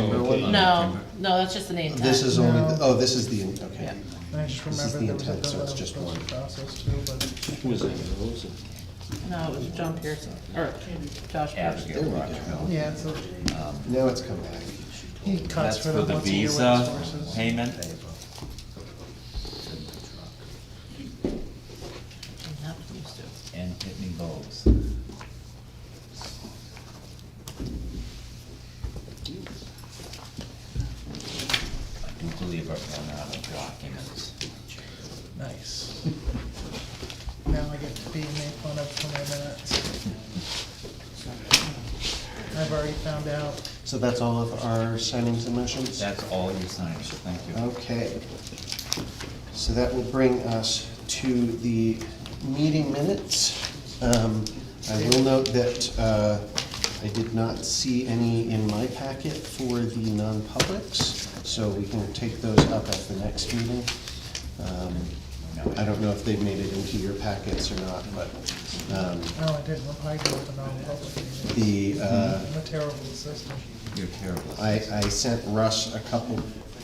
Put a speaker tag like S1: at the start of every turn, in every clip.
S1: Timberland?
S2: No, no, that's just the name tag.
S1: Uh, This is only,
S3: No.
S1: the- oh, this is the, in-
S2: Yeah.
S1: okay.
S3: I just
S1: This is
S3: remember
S1: the
S3: there was a
S1: intent, so it's just
S3: bill
S1: one.
S3: process too, but
S4: Who was that?
S2: No, it was John Pearson, or Josh Pearson.
S1: There we go.
S3: yeah, it's a,
S1: Now it's come back.
S3: he cuts
S5: Um, That's
S3: for
S5: for
S3: them
S5: the
S3: once a year with his
S5: visa
S3: horses.
S5: payment.
S2: I'm not used to it.
S5: And Pitney Bowes. I do believe I've run out of documents.
S3: Nice. Now I get to be made fun of for my minutes. I've already found out.
S1: So that's all of our signings and motions?
S5: That's all you signed, so thank you.
S1: Okay. So that will bring us to the meeting minutes. Um, I will note that uh, I did not see any in my packet for the non-publics, so we can take those up at the next meeting. Um, I don't know if they made it into your packets or not, but um,
S3: No, oh, I didn't reply to the non-public meeting.
S1: the, uh,
S3: I'm a terrible assistant.
S5: You're terrible.
S1: I, I sent Russ a couple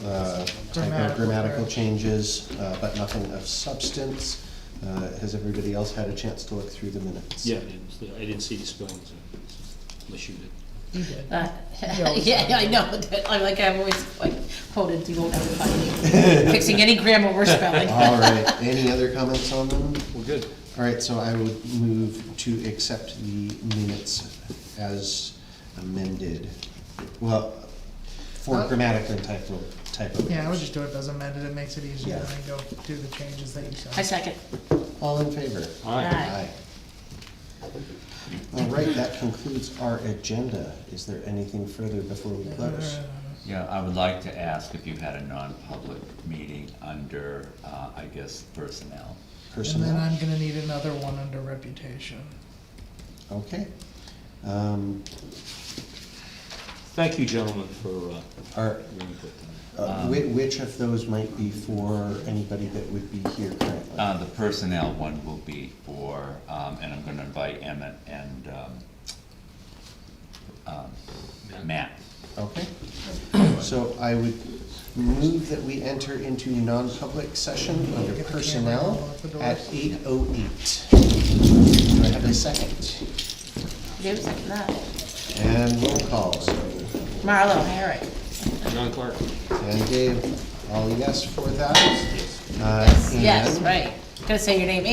S1: uh, typo
S3: Grammatical
S1: grammatical
S3: errors.
S1: changes, uh, but nothing of substance. Uh, Has everybody else had a chance to look through the minutes?
S4: Yeah, I didn't, I didn't see the spellings, unless you did.
S3: You did.
S2: Uh,
S3: You always
S2: Yeah,
S3: find
S2: I know, I like, I've always like quoted, you won't ever find me fixing any grammar or spelling.
S1: All right, any other comments on them?
S4: Well, good.
S1: All right, so I would move to accept the minutes as amended. Well, for
S3: Uh,
S1: grammatical and typo, typo.
S3: Yeah, I would just do it as amended, it makes it easier,
S1: Yeah.
S3: and then go do the changes that you
S2: I
S3: sent.
S2: second.
S1: All in favor?
S4: Aye.
S2: Aye.
S1: All right, that concludes our agenda. Is there anything further before we
S3: Uh,
S1: close?
S5: Yeah, I would like to ask if you had a non-public meeting under, uh, I guess, personnel.
S3: And then
S1: Personnel?
S3: I'm gonna need another one under reputation.
S1: Okay. Um,
S4: Thank you, gentlemen, for, uh,
S1: Are,
S4: your input. tonight.
S1: uh, whi- which of those might be for anybody that would be here currently?
S5: Uh, the personnel one will be for, um, and I'm gonna invite Emmett and, um, um, Matt.
S1: Okay. So I would move that we enter into non-public session under
S3: Get the camera
S1: personnel
S3: off the door.
S1: at eight oh eight. Do I have a second?
S2: Dave seconded that.
S1: And roll call, so
S2: Marlo, Herrick.
S1: Mm-hmm.
S4: John Clark?
S1: And Dave, all yes for that? Uh,
S2: Yes,
S1: and-
S2: right. Gonna say your name